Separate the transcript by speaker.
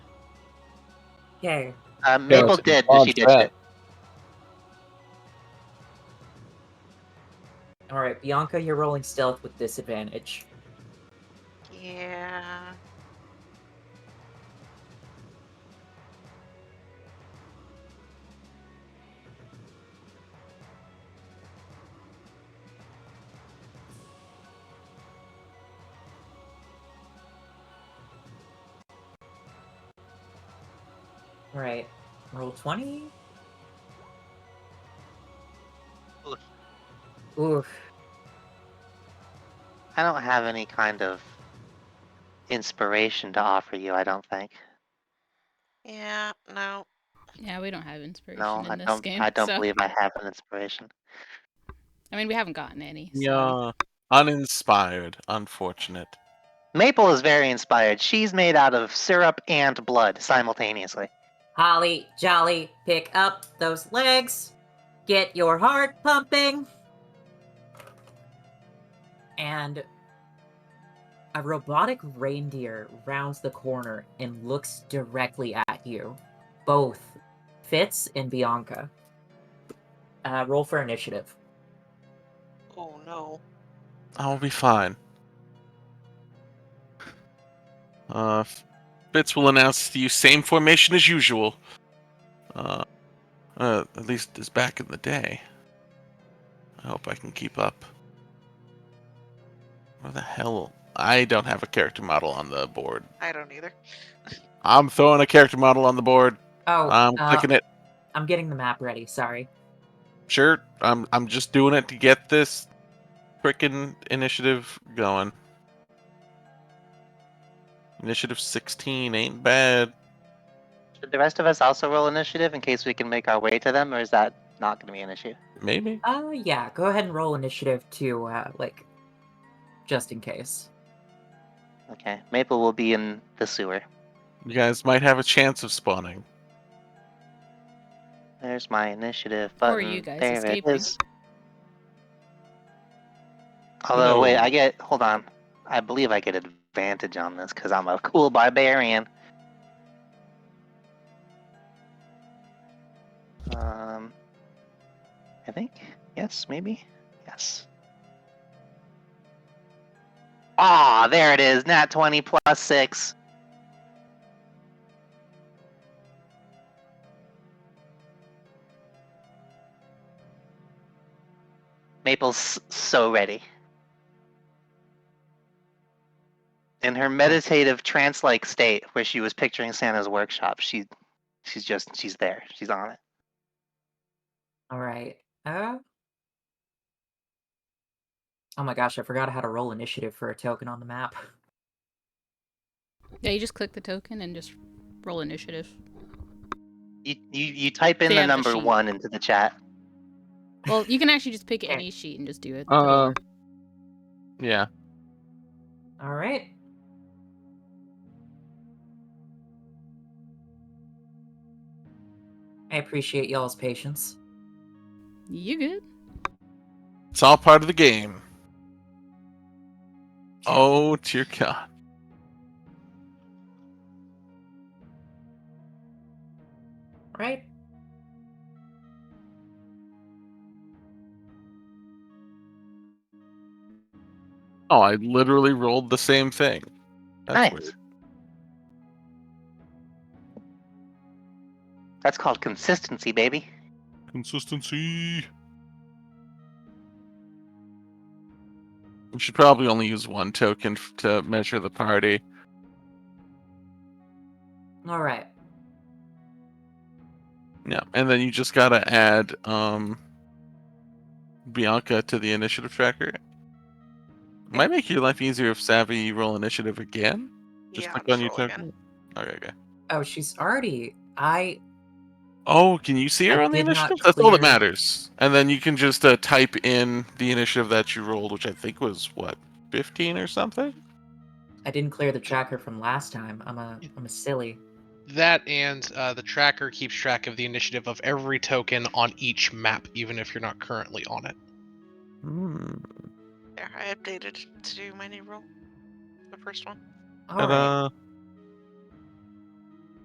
Speaker 1: Yay.
Speaker 2: Uh, Maple
Speaker 3: it's
Speaker 2: did.
Speaker 3: on
Speaker 2: She did.
Speaker 3: track.
Speaker 2: it.
Speaker 1: All right, Bianca, you're rolling stealth with disadvantage.
Speaker 4: Yeah.
Speaker 1: All right, roll 20.
Speaker 2: Oof.
Speaker 1: Oof.
Speaker 2: I don't have any kind of inspiration to offer you. I don't think.
Speaker 4: Yeah. No.
Speaker 5: Yeah, we don't have inspiration
Speaker 2: No,
Speaker 5: in
Speaker 2: I
Speaker 5: this
Speaker 2: don't.
Speaker 5: game.
Speaker 2: I don't
Speaker 5: so-
Speaker 2: believe I have an inspiration.
Speaker 5: I mean, we haven't gotten any. so-
Speaker 6: Yeah. Uh, Uninspired. Unfortunate.
Speaker 2: Maple is very inspired. She's made out of syrup and blood simultaneously.
Speaker 1: Holly, Jolly, pick up those legs. Get your heart pumping. And a robotic reindeer rounds the corner and looks directly at you. Both Fitz and Bianca. Uh, roll for initiative.
Speaker 4: Oh no.
Speaker 6: I'll be fine. Uh, Fitz will announce to you same formation as usual. Uh, uh, at least as back in the day. I hope I can keep up. Where the hell? I don't have a character model on the board.
Speaker 4: I don't either.
Speaker 6: I'm throwing a character model on the board.
Speaker 1: Oh,
Speaker 6: I'm
Speaker 1: uh,
Speaker 6: clicking it.
Speaker 1: I'm getting the map ready. Sorry.
Speaker 6: Sure, I'm. I'm just doing it to get this frickin' initiative going. Initiative 16 ain't bad.
Speaker 2: Should the rest of us also roll initiative in case we can make our way to them, or is that not going to be an issue?
Speaker 6: Maybe.
Speaker 1: Oh, yeah. Go ahead and roll initiative to, uh, like, just in case.
Speaker 2: Okay. Maple will be in the sewer.
Speaker 6: You guys might have a chance of spawning.
Speaker 2: There's my initiative
Speaker 5: Or
Speaker 2: button.
Speaker 5: you guys
Speaker 2: there
Speaker 5: escaping.
Speaker 2: It is. Although, wait, I get. Hold on. I believe I get advantage on this because I'm a cool barbarian. Um, I think. Yes, maybe. Yes. Ah, there it is. Nat 20 plus 6. Maple's so ready. In her meditative trance-like state, where she was picturing Santa's workshop, she, she's just, she's there. She's on it.
Speaker 1: All right. Uh... Oh my gosh, I forgot how to roll initiative for a token on the map.
Speaker 5: Yeah, you just click the token and just roll initiative.
Speaker 2: You, you, you type in
Speaker 5: They
Speaker 2: the
Speaker 5: have the
Speaker 2: number
Speaker 5: sheet.
Speaker 2: one into the chat.
Speaker 5: Well, you can actually just pick
Speaker 1: Okay.
Speaker 5: any sheet and just do it.
Speaker 3: Uh, yeah.
Speaker 1: All right. I appreciate y'all's patience.
Speaker 5: you good?
Speaker 6: It's all part of the game. Oh dear God.
Speaker 1: All right.
Speaker 6: Oh, I literally rolled the same thing.
Speaker 2: nice.
Speaker 6: weird.
Speaker 2: That's called consistency, baby.
Speaker 6: Consistency. We should probably only use one token f- to measure the party.
Speaker 1: All right.
Speaker 6: Yeah, and then you just gotta add um Bianca to the initiative tracker. Might make your life easier if Savvy you roll initiative again. Just
Speaker 4: yeah,
Speaker 6: click
Speaker 4: I'm
Speaker 6: on your
Speaker 4: scrolling
Speaker 6: token. Okay, okay.
Speaker 1: Oh, she's already. I.
Speaker 6: Oh, can you see her
Speaker 1: I
Speaker 6: on the
Speaker 1: did not
Speaker 6: initiative? That's all that
Speaker 1: clear-
Speaker 6: matters. And then you can just uh, type in the initiative that you rolled, which I think was what fifteen or something.
Speaker 1: I didn't clear the tracker from last time. I'm a. I'm a silly.
Speaker 7: That and uh, the tracker keeps track of the initiative of every token on each map, even if you're not currently on it.
Speaker 6: Hmm.
Speaker 4: There, I updated to do my new role. The first one.
Speaker 1: All right.
Speaker 6: Ta-da.